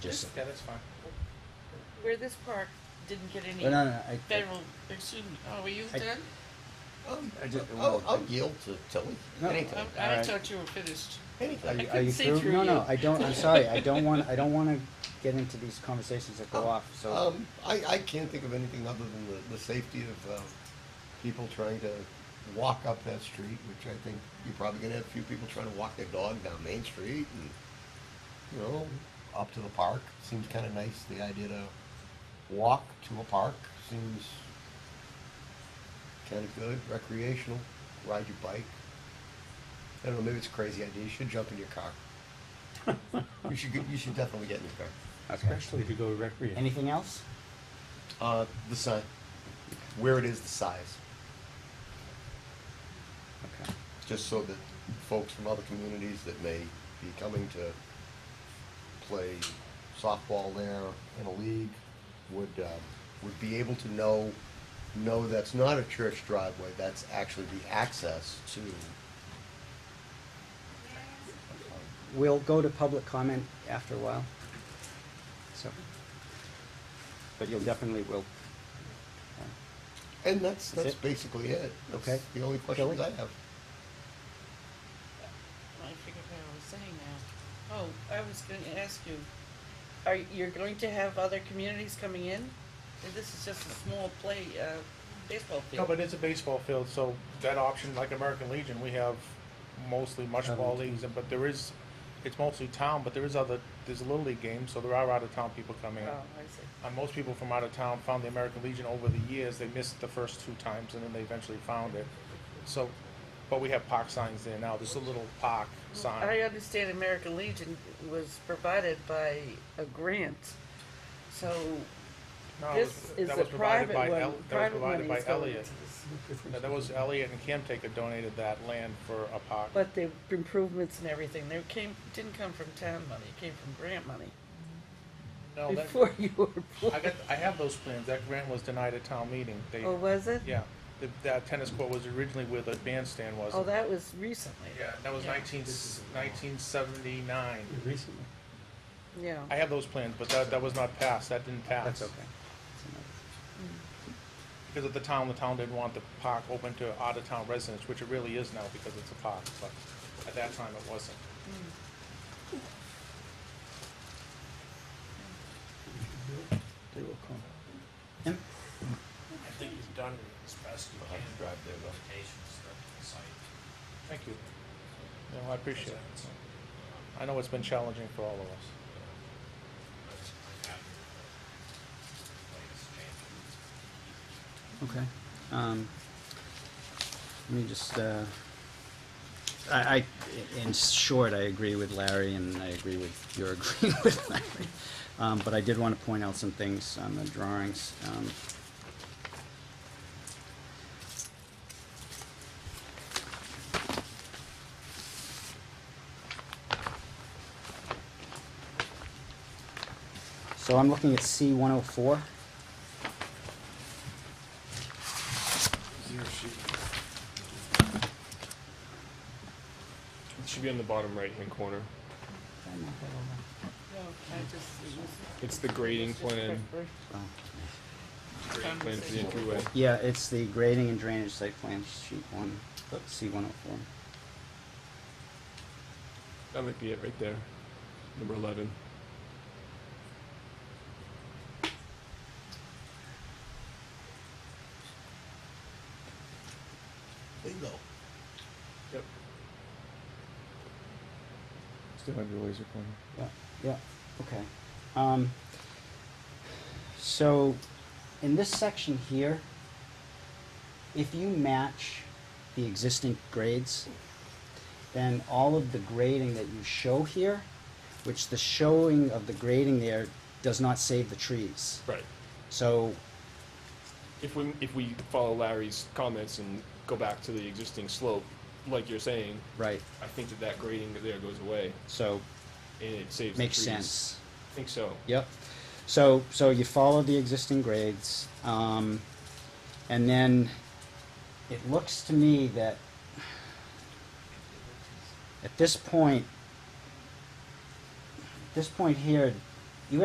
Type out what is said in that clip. Just, Yeah, that's fine. Where this park didn't get any well, no, no, I, federal, excuse me, oh, were you I- done? Um, I just- I'll, I'll yield to Tilly, No. anytime, I- I alright. thought you were finished. Are anytime. you, I are you couldn't see through? through no, no, you. I don't. I'm sorry. I don't want. I don't want to get into these conversations that go off. So Um, I, I can't think of anything other than the, the safety of, um, people trying to walk up that street, which I think you're probably gonna have a few people trying to walk their dog down Main Street and, you know, up to the park. Seems kinda nice, the idea to walk to a park seems kinda good, recreational, ride your bike. I don't know, maybe it's a crazy idea, you should jump in your car. You should, get- you should definitely get in your car. okay. Especially if you go to recreation. Anything else? Uh, the sign. Where it is, the size. Okay. Just so that folks from other communities that may be coming to play softball there in a league would, uh, would be able to know, no, that's not a church driveway, that's actually the access to, We'll go to public comment after a while. So, but you'll definitely will. and that's, That's that's it? basically it. That's Okay. The only questions I Kelly? have. I forget what I was saying now. Oh, I was gonna ask you, are, you're going to have other communities coming in? And This is just a small play, uh, baseball No, field. but it's a baseball field, so that option, like American Legion, we have mostly mush ball leagues, but there is, it's mostly town, but there is other, there's a little league game, so there are out of town people coming in. Oh, I see. And most people from out of town found the American Legion over the years. They missed the first two times, and then they eventually found it. So, but we have park signs there now. There's a little park sign. I understand American Legion was provided by a grant, so No, it this was- is Oh, that a was provided private by one, El- That was private provided money by is going Elliot. to this. No, That was Elliot and Camtaker donated that land for a park. But the improvements and everything, they came, didn't come from town money, it came from grant money, No, that- before you were I born. got, I have those plans. That grant was denied at town meeting. They, Oh, was it? yeah, the, that tennis court was originally where the bandstand was. Oh, that was recently. Yeah, that was Yeah. 19, 1979. Recently. Yeah. I have those plans, but that, that was not passed. That didn't pass. That's okay. Because at the town, the town didn't want the park open to out-of-town residents, which it really is now because it's a park, but at that time it wasn't. They will come. Em? I think he's done as best he I'll can have to drive there, though. presentations that the site. Thank you. No, I appreciate it. presents. I know it's been challenging for all of us. But I'm happy with the latest changes. Okay. Um, let me just, uh, I, I, in short, I agree with Larry and I agree with your agreeing with Larry. Um, but I did want to point out some things on the drawings. Um, so I'm looking at C one oh four. It should be on the bottom right-hand corner. No, I just- it was- It's the grading plan, Oh. plan for the entryway. Yeah, it's the grading and drainage site plan, sheet one, C one oh four. That might be it right there, number eleven. Bingo. Yep. Still have your laser pointer. Yeah, yeah, okay. Um, so, in this section here, if you match the existing grades, then all of the grading that you show here, which the showing of the grading there does not save the trees. Right. So, If we, if we follow Larry's comments and go back to the existing slope, like you're saying, right, I think that that grading there goes away so, and it saves the makes trees. sense. I think so. Yep. So, so you follow the existing grades, um, and then it looks to me that at this point, at this point here,